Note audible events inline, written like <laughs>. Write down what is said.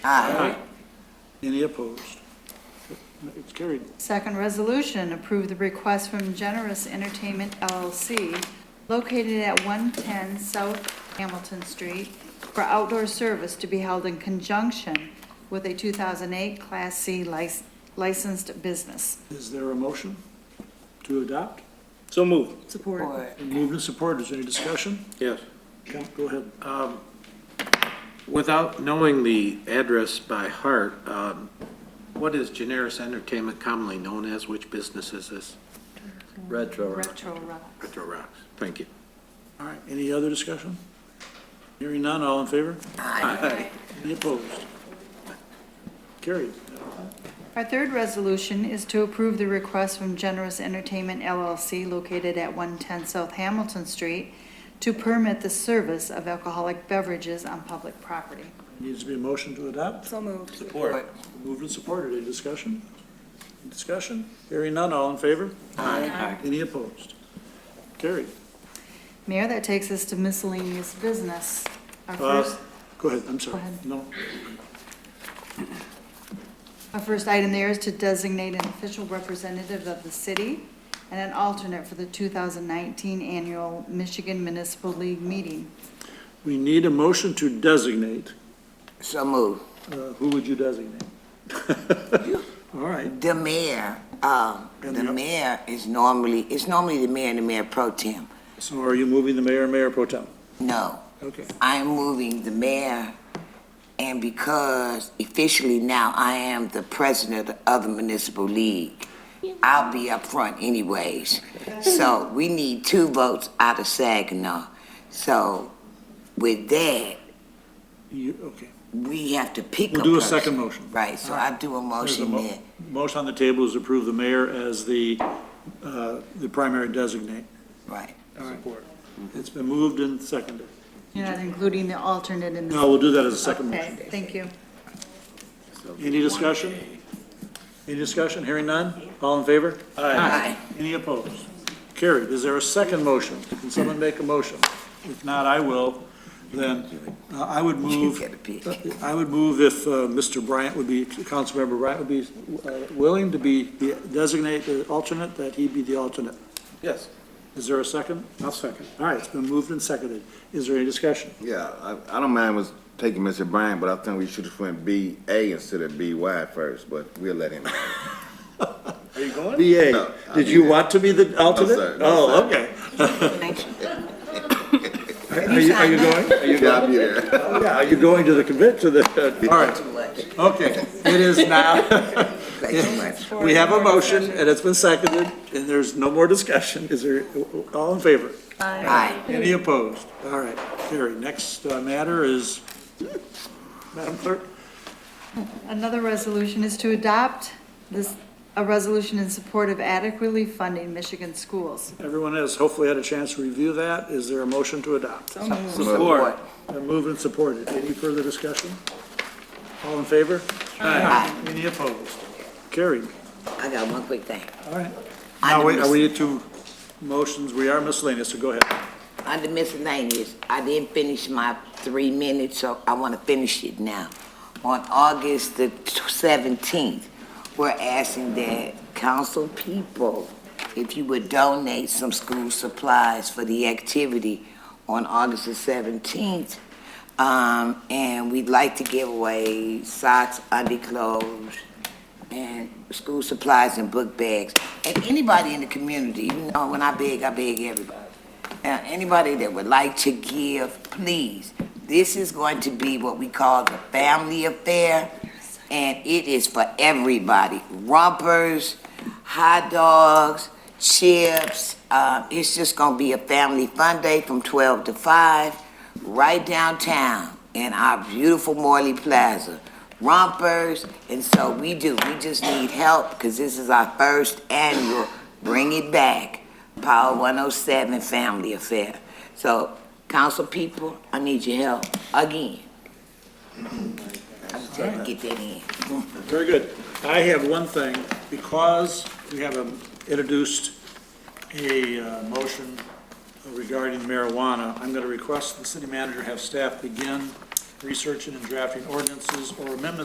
Aye. Any opposed? It's carried. Second resolution, approve the request from Generous Entertainment LLC, located at 110 South Hamilton Street, for outdoor service to be held in conjunction with a 2008 Class C lic- licensed business. Is there a motion to adopt? So moved. Support. Moved and supported, is there any discussion? Yes. Count, go ahead. Without knowing the address by heart, um, what is Generis Entertainment commonly known as? Which business is this? Retro Retro Rock. Retro Rocks. Thank you. All right, any other discussion? Hearing none, all in favor? Aye. Any opposed? Carried. Our third resolution is to approve the request from Generous Entertainment LLC located at 110 South Hamilton Street to permit the service of alcoholic beverages on public property. Needs to be a motion to adopt? So moved. Support. Moved and supported, any discussion? Discussion? Hearing none, all in favor? Aye. Any opposed? Carried. Mayor, that takes us to miscellaneous business. Our Uh, first, Go ahead, I'm sorry. Go ahead. No, our first item there is to designate an official representative of the city and an alternate for the 2019 annual Michigan Municipal League meeting. we need a motion to designate. So moved. Uh, Who would you designate? <laughs> All right, The mayor, um, And the the- mayor is normally, it's normally the mayor and the mayor pro tem. so are you moving the mayor and mayor pro tem? No, Okay. I'm moving the mayor, and because officially now I am the president of the municipal league, I'll be up front anyways. <laughs> So we need two votes out of Saginaw. So with that, You, okay. we have to pick a We'll do a person. second motion. Right, so I do a There's a motion mo- there. Motion on the table is approve the mayor as the, uh, the primary designate. Right. Support. It's been moved and seconded. You're not including the alternate in this. No, we'll do that as a second motion. Okay, thank you. Any discussion? Any discussion? Hearing none? All in favor? Aye. Any opposed? Carried. Is there a second motion? Can someone make a motion? If not, I will. Then uh, I would move, get a peek. I would move if uh, Mr. Bryant would be, Councilmember Bryant would be uh, willing to be, the- designate the alternate, that he be the alternate. Yes. Is there a second? I'll second. All right, it's been moved and seconded. Is there any discussion? Yeah, I, I don't mind was taking Mr. Bryan, but I think we should have went B A instead of B Y first, but we'll let him. Are you going? BA, did you want to be the alternate? sir. No, Oh, sir. okay. Thank you. Are you, are you going? <laughs> Are you Yeah, I'll be there. Yeah, are you going to the convent, to the, uh, all right, Too much. okay. It is now, Thank you much. we have a motion, and it's been seconded, and there's no more discussion. Is there, all in favor? Aye. Any opposed? All right, Carrie, next uh, matter is, Madam Clerk? Another resolution is to adopt this, a resolution in support of adequately funding Michigan schools. Everyone has hopefully had a chance to review that. Is there a motion to adopt? Support. Been moved and supported. Any further discussion? All in favor? Aye. Any opposed? Carried. I got one quick thing. All right. Now, Item wait, mis- are we to motions? We are miscellaneous, so go ahead. Under miscellaneous, I didn't finish my three minutes, so I want to finish it now. On August the seventeenth, we're asking that council people, if you would donate some school supplies for the activity on August the seventeenth. Um, and we'd like to give away socks, underclothes, and school supplies and book bags. And anybody in the community, you know, when I beg, I beg everybody. Now, anybody that would like to give, please, this is going to be what we call the family affair, and it is for everybody. Rompers, hot dogs, chips, uh, it's just gonna be a family fun day from twelve to five, right downtown in our beautiful Morley Plaza. Rompers, and so we do, we just need help, because this is our first annual Bring It Back. Power 107 Family Affair. So, council people, I need your help again. I just had to get that in. Very good. I have one thing, because we have um, introduced a uh, motion regarding marijuana, I'm going to request the city manager have staff begin researching and drafting ordinances or amendments